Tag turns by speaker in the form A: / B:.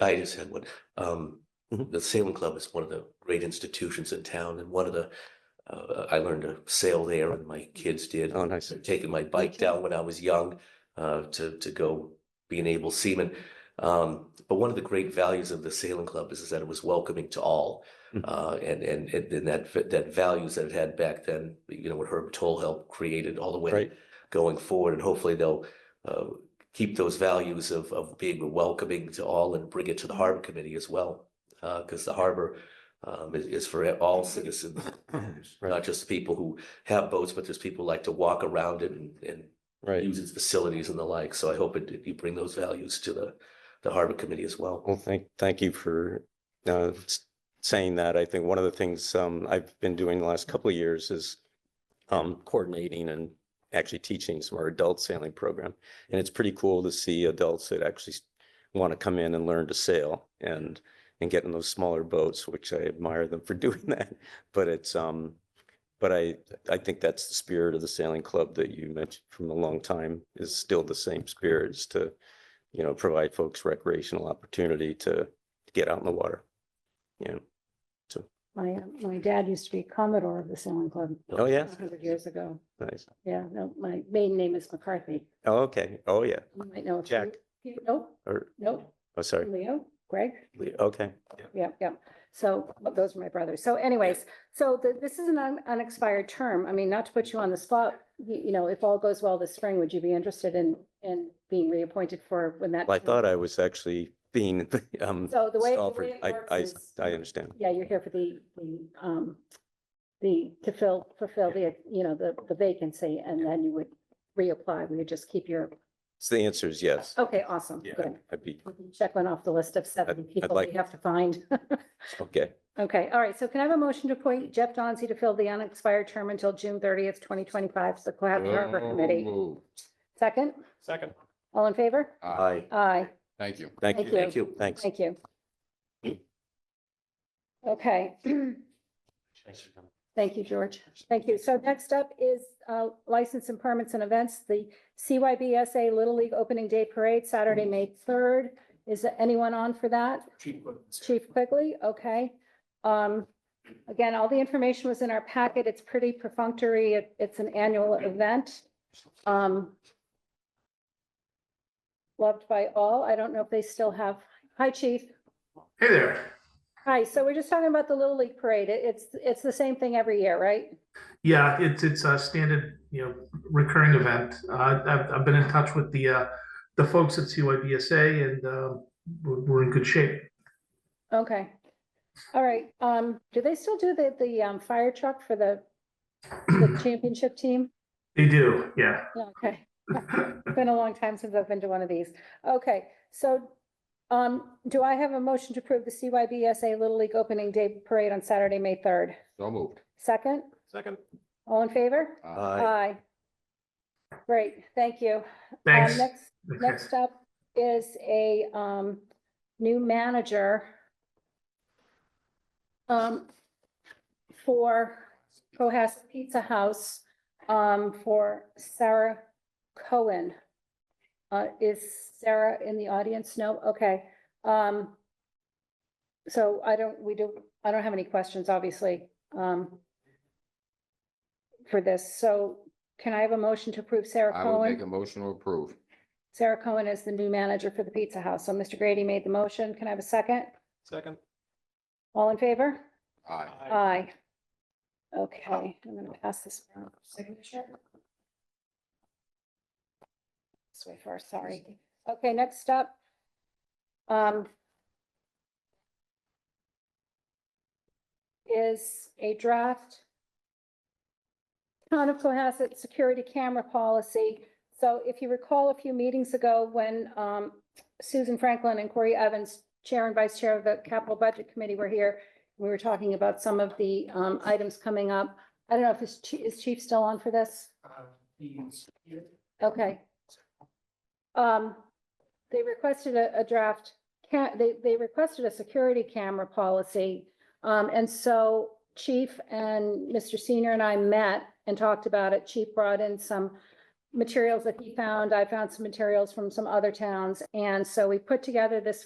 A: I just had one. Um, the Sailing Club is one of the great institutions in town and one of the, uh, I learned to sail there and my kids did.
B: Oh, nice.
A: Taking my bike down when I was young, uh, to, to go be an able seaman. Um, but one of the great values of the Sailing Club is, is that it was welcoming to all.
B: Mhm.
A: Uh, and, and, and then that, v- that values that it had back then, you know, what Herb Toll helped created all the way
B: Right.
A: going forward, and hopefully they'll uh, keep those values of of being welcoming to all and bring it to the
B: Mm-hmm.
A: harbor committee as well. Because the harbor um, is, is for all citizens, not just people who have boats, but there's people who like to walk around it and and
B: Right.
A: use its facilities and the like. So I hope it, you bring those values to the the harbor committee as well.
B: Well, thank, thank you for uh, s- saying that. I think one of the things um, I've been doing the last couple of years is um, coordinating and actually teaching some of our adult sailing program. And it's pretty cool to see adults that actually want to come in and learn to sail and, and get in those smaller boats, which I admire them for doing that. But it's, um, but I, I think that's the spirit of the sailing club that you mentioned from a long time is still the same spirit is to you know, provide folks recreational opportunity to get out in the water. You know,
C: My, uh, my dad used to be Commodore of the Sailing Club
B: oh,
C: a
B: yeah,
C: hundred years ago.
B: nice.
C: Yeah, no, my maiden name is McCarthy.
B: Oh, okay. Oh, yeah.
C: You might know. a few-
B: Jack
C: few- Nope,
B: or,
C: nope,
B: oh, sorry.
C: Leo, Greg,
B: Okay. Yeah.
C: yep, yep. So but those are my brothers. So anyways, so th- this is an un- unexpired term. I mean, not to put you on the spot, you, you know, if all goes well this spring, would you be interested in, in being reappointed for when that?
B: Well, I
C: term-
B: thought I was actually being, um,
C: So the way. the
B: stalled for-
C: way it
B: I,
C: works
B: I,
C: is-
B: I understand.
C: Yeah, you're here for the, the, um, the, to fill, fulfill the, you know, the, the vacancy and then you would reapply. We would just keep your,
B: So the answer is yes.
C: Oh, okay, awesome.
B: Yeah,
C: Good.
B: I'd be,
C: We can Check one off the list of seven
B: I'd
C: people
B: like-
C: we have to find.
B: okay.
C: Okay, all right. So can I have a motion to appoint Jeff Dauncey to fill the unexpired term until June thirtieth, twenty twenty-five, the Cohasset Harbor Committee? Second?
D: Second.
C: All in favor?
D: Aye.
C: Aye,
D: Thank you.
B: Thank
C: Thank
B: you.
C: you.
A: Thank you.
B: Thanks.
C: thank you. Okay. Thank you, George. Thank you. So next up is uh, license and permits and events, the CYBSA Little League Opening Day Parade, Saturday, May 3rd. Is anyone on for that? Chief Quigley, okay. Um, Again, all the information was in our packet. It's pretty perfunctory. It- It's an annual event. Um, Loved by all. I don't know if they still have, hi, chief.
E: Hey there.
C: Hi, so we're just talking about the Little League Parade. It- It's, it's the same thing every year, right?
E: Yeah, it's it's a standard, you know, recurring event. Uh, I've I've been in touch with the uh, the folks at CYBSA, and uh, we're, we're in good shape.
C: Okay. All right. Um, do they still do the, the, um, fire truck for the, the championship team?
E: They do, yeah.
C: Yeah, Okay. It's Been a long time since I've been to one of these. Okay, so, um, do I have a motion to approve the CYBSA Little League Opening Day Parade on Saturday, May third?
D: So moved.
C: Second?
D: Second.
C: All in favor?
A: Aye.
C: Aye. Great, thank you. Um,
E: Thanks.
C: Next, Next up is a um new manager. Um, for Cohasset Pizza House, um, for Sarah Cohen. Uh, is Sarah in the audience? No, okay, um. So I don't, we do, I don't have any questions, obviously, um. For this, so can I have a motion to approve Sarah
D: I
C: Cohen?
D: would make a motion to approve.
C: Sarah Cohen is the new manager for the Pizza House. So Mr. Grady made the motion. Can I have a second?
D: Second.
C: All in favor?
D: Aye.
C: Aye. Okay, I'm gonna pass this around for signature. This way first, sorry. Okay, next up. Um. Is a draft. Town of Cohasset Security Camera Policy. So if you recall a few meetings ago when um Susan Franklin and Corey Evans, Chair and Vice Chair of the Capital Budget Committee were here. We were talking about some of the um items coming up. I don't know if is Chief, is Chief still on for this? Okay. Um, they requested a, a draft, ca- they, they requested a security camera policy. Um, and so Chief and Mr. Senior and I met and talked about it. Chief brought in some materials that he found. I found some materials from some other towns. And so we put together this